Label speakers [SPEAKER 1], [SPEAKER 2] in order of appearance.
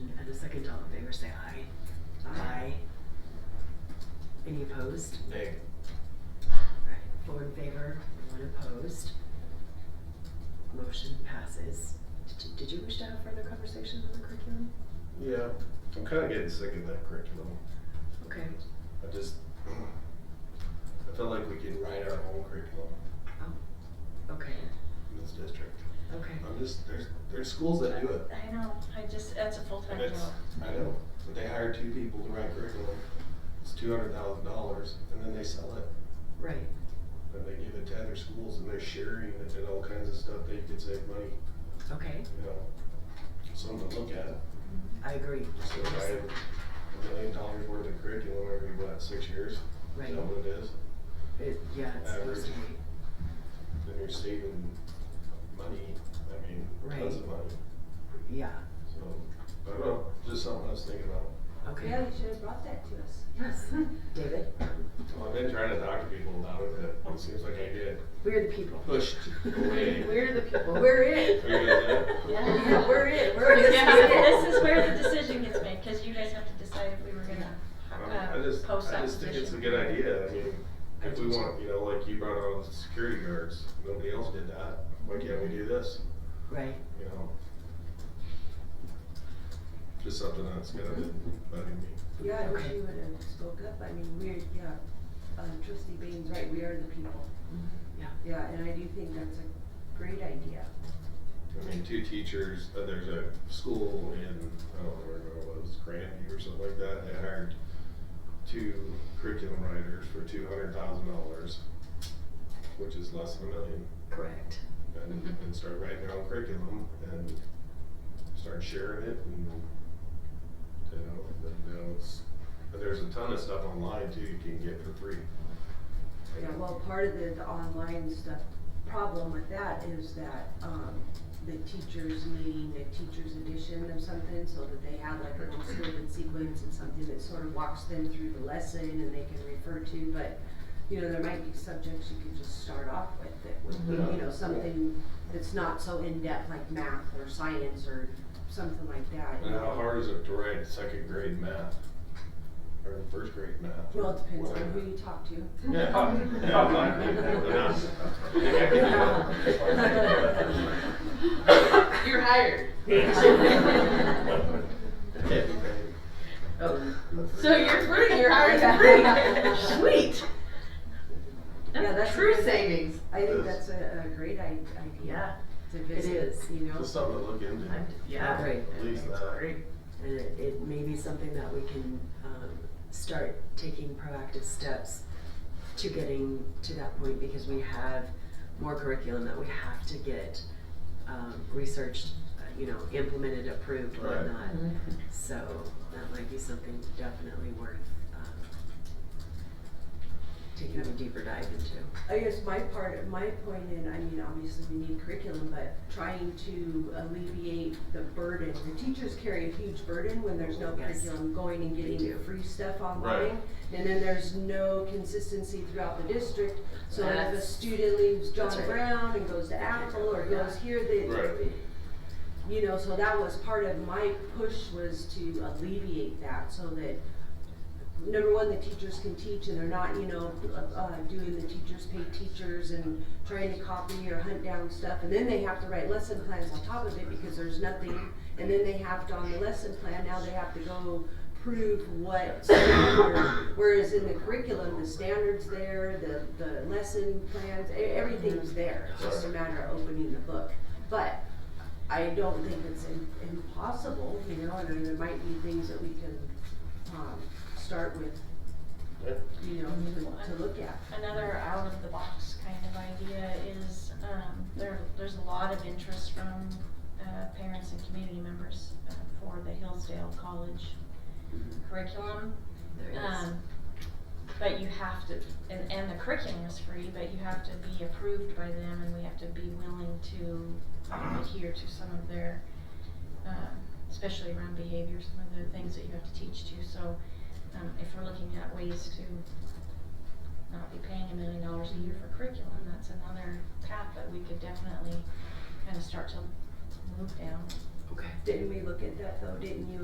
[SPEAKER 1] second, all in favor, say aye. Aye. Any opposed?
[SPEAKER 2] Nay.
[SPEAKER 1] Alright, four in favor, one opposed. Motion passes. Did- Did you wish to have further conversation on the curriculum?
[SPEAKER 2] Yeah, I'm kind of getting sick of that curriculum.
[SPEAKER 1] Okay,
[SPEAKER 2] I just, I feel like we can write our own curriculum
[SPEAKER 1] oh, okay,
[SPEAKER 2] in this district.
[SPEAKER 1] okay.
[SPEAKER 2] I'm just, there's, there's schools that do it.
[SPEAKER 3] I know, I just, that's a full-time
[SPEAKER 2] And
[SPEAKER 3] job.
[SPEAKER 2] it's, I know, but they hire two people to write curriculum. It's two hundred thousand dollars and then they sell it.
[SPEAKER 1] Right,
[SPEAKER 2] And they give it to other schools and they're sharing it and all kinds of stuff that you could save money,
[SPEAKER 1] okay,
[SPEAKER 2] you know. Something to look at.
[SPEAKER 1] I agree.
[SPEAKER 2] So buy a million dollars worth of curriculum every, what, six years?
[SPEAKER 1] Right,
[SPEAKER 2] Is that what it is?
[SPEAKER 1] It- yeah, it's supposed to be,
[SPEAKER 2] Then you're saving money, I mean, tons of money.
[SPEAKER 1] yeah,
[SPEAKER 2] So, I don't know, just something I was thinking about.
[SPEAKER 1] okay.
[SPEAKER 3] Yeah, you should have brought that to us.
[SPEAKER 1] Yes, David,
[SPEAKER 2] Well, I've been trying to talk to people about it, but it seems like I get
[SPEAKER 1] we're the people.
[SPEAKER 2] pushed away.
[SPEAKER 1] We're the people,
[SPEAKER 3] We're it.
[SPEAKER 2] Are you guys there?
[SPEAKER 3] Yeah.
[SPEAKER 1] Yeah, we're it, we're
[SPEAKER 3] This
[SPEAKER 1] it.
[SPEAKER 3] is, this is where the decision gets made, cause you guys have to decide if we were gonna,
[SPEAKER 2] I
[SPEAKER 3] uh,
[SPEAKER 2] just,
[SPEAKER 3] post
[SPEAKER 2] I
[SPEAKER 3] that position.
[SPEAKER 2] just think it's a good idea, I mean, if we want, you know, like you brought on the security guards, nobody else did that, why can't we do this?
[SPEAKER 1] Right,
[SPEAKER 2] you know. Just something that's gonna bug me.
[SPEAKER 4] Yeah, I wish
[SPEAKER 1] Okay.
[SPEAKER 4] you would have spoke up, I mean, we're, yeah, um, trustee Baines, right, we are the people,
[SPEAKER 1] yeah,
[SPEAKER 4] yeah, and I do think that's a great idea.
[SPEAKER 2] I mean, two teachers, uh, there's a school in, I don't remember where it was, Grandview or something like that, they hired two curriculum writers for two hundred thousand dollars, which is less than a million,
[SPEAKER 1] correct,
[SPEAKER 2] and, and start writing their own curriculum and start sharing it and, you know, and then it's, but there's a ton of stuff online too you can get for free.
[SPEAKER 4] Yeah, well, part of the, the online stuff, problem with that is that, um, the teachers needing a teacher's edition of something, so that they have like a student sequence and something that sort of walks them through the lesson and they can refer to, but, you know, there might be subjects you could just start off with that would be, you know, something that's not so in-depth like math or science or something like that. you
[SPEAKER 2] And how
[SPEAKER 4] know.
[SPEAKER 2] hard is it to write second grade math? Or first grade math?
[SPEAKER 4] Well, it depends on
[SPEAKER 2] Whatever.
[SPEAKER 4] who you talk to.
[SPEAKER 2] Yeah. Yeah.
[SPEAKER 5] You're hired. So you're free, you're hired as free. Sweet.
[SPEAKER 4] Yeah,
[SPEAKER 5] That's
[SPEAKER 4] that's
[SPEAKER 5] true
[SPEAKER 4] amazing.
[SPEAKER 5] savings.
[SPEAKER 4] I think that's a, a great i- idea to visit,
[SPEAKER 1] is.
[SPEAKER 4] you know?
[SPEAKER 2] Just something to look into.
[SPEAKER 5] I'm- Yeah.
[SPEAKER 1] Great.
[SPEAKER 2] At least uh,
[SPEAKER 5] That's
[SPEAKER 2] that.
[SPEAKER 5] great.
[SPEAKER 1] and it, it may be something that we can, um, start taking proactive steps to getting to that point, because we have more curriculum that we have to get, um, researched, uh, you know, implemented, approved,
[SPEAKER 2] Right.
[SPEAKER 1] whatnot. So that might be something definitely worth, um, taking a deeper dive into.
[SPEAKER 4] I guess my part, my point in, I mean, obviously we need curriculum, but trying to alleviate the burden. The teachers carry a huge burden when there's no
[SPEAKER 1] Yes.
[SPEAKER 4] curriculum going and
[SPEAKER 1] They do.
[SPEAKER 4] getting free stuff
[SPEAKER 2] Right.
[SPEAKER 4] online. And then there's no consistency throughout the district, so if a
[SPEAKER 5] That's-
[SPEAKER 4] student leaves John
[SPEAKER 1] That's right.
[SPEAKER 4] Brown and goes to
[SPEAKER 1] can't
[SPEAKER 4] Apple or
[SPEAKER 1] go, yeah.
[SPEAKER 4] goes here, they,
[SPEAKER 2] Right.
[SPEAKER 4] you know, so that was part of my push was to alleviate that so that number one, the teachers can teach and they're not, you know, uh, uh, doing the teachers pay teachers and trying to copy or hunt down stuff. And then they have to write lesson plans on top of it because there's nothing. And then they have to, on the lesson plan, now they have to go prove what standard. Whereas in the curriculum, the standard's there, the, the lesson plans, e- everything's there. It's just a matter of opening the book. But I don't think it's im- impossible, you know, and then there might be things that we can, um, start with,
[SPEAKER 2] Yeah.
[SPEAKER 4] you know, to, to look at.
[SPEAKER 3] Another out-of-the-box kind of idea is, um, there, there's a lot of interest from, uh, parents and community members uh, for the Hillsdale College
[SPEAKER 2] Mm-hmm.
[SPEAKER 3] curriculum.
[SPEAKER 1] There is.
[SPEAKER 3] Um, but you have to, and, and the curriculum is free, but you have to be approved by them and we have to be willing to adhere to some of their, um, especially around behavior, some of the things that you have to teach to. So, um, if we're looking at ways to not be paying a million dollars a year for curriculum, that's another path that we could definitely kind of start to move down.
[SPEAKER 1] Okay.
[SPEAKER 4] Didn't we look at that though, didn't you